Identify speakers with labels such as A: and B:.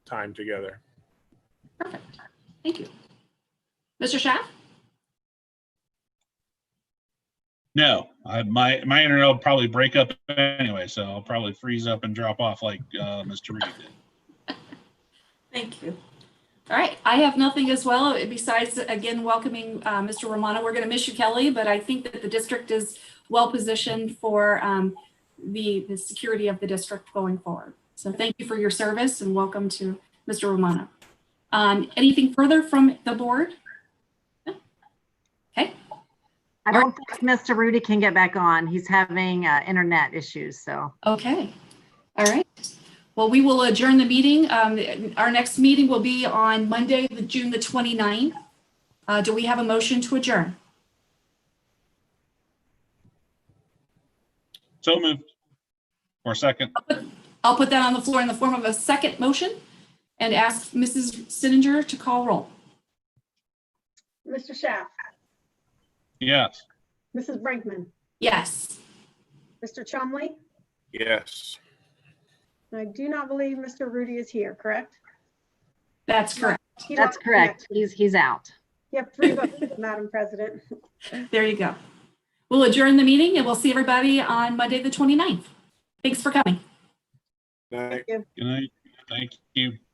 A: time together.
B: Perfect. Thank you. Mr. Schaff?
C: No, I, my, my internet will probably break up anyway, so I'll probably freeze up and drop off like, uh, Mr. Reed did.
B: Thank you. All right, I have nothing as well, uh, besides, again, welcoming uh, Mr. Romano. We're going to miss you, Kelly, but I think that the district is well-positioned for um, the, the security of the district going forward. So thank you for your service and welcome to Mr. Romano. Um, Anything further from the board?
D: I don't think Mr. Rudy can get back on. He's having uh, internet issues, so.
B: Okay, all right. Well, we will adjourn the meeting. Um, Our next meeting will be on Monday, the- June the 29th. Uh, Do we have a motion to adjourn?
C: So moved. Or second,
B: I'll put that on the floor in the form of a second motion and ask Mrs. Sininger to call roll.
E: Mr. Schaaf,
C: yes.
E: Mrs. Brinkman,
B: Yes.
E: Mr. Chumley,
A: Yes.
E: and I do not believe Mr. Rudy is here, correct?
B: That's correct.
E: He
D: That's
E: lost
D: correct. He's, he's out.
E: connection. You have three votes, Madam President.
B: There you go. We'll adjourn the meeting and we'll see everybody on Monday, the 29th. Thanks for coming.
A: Night.
C: Good night. Thank you.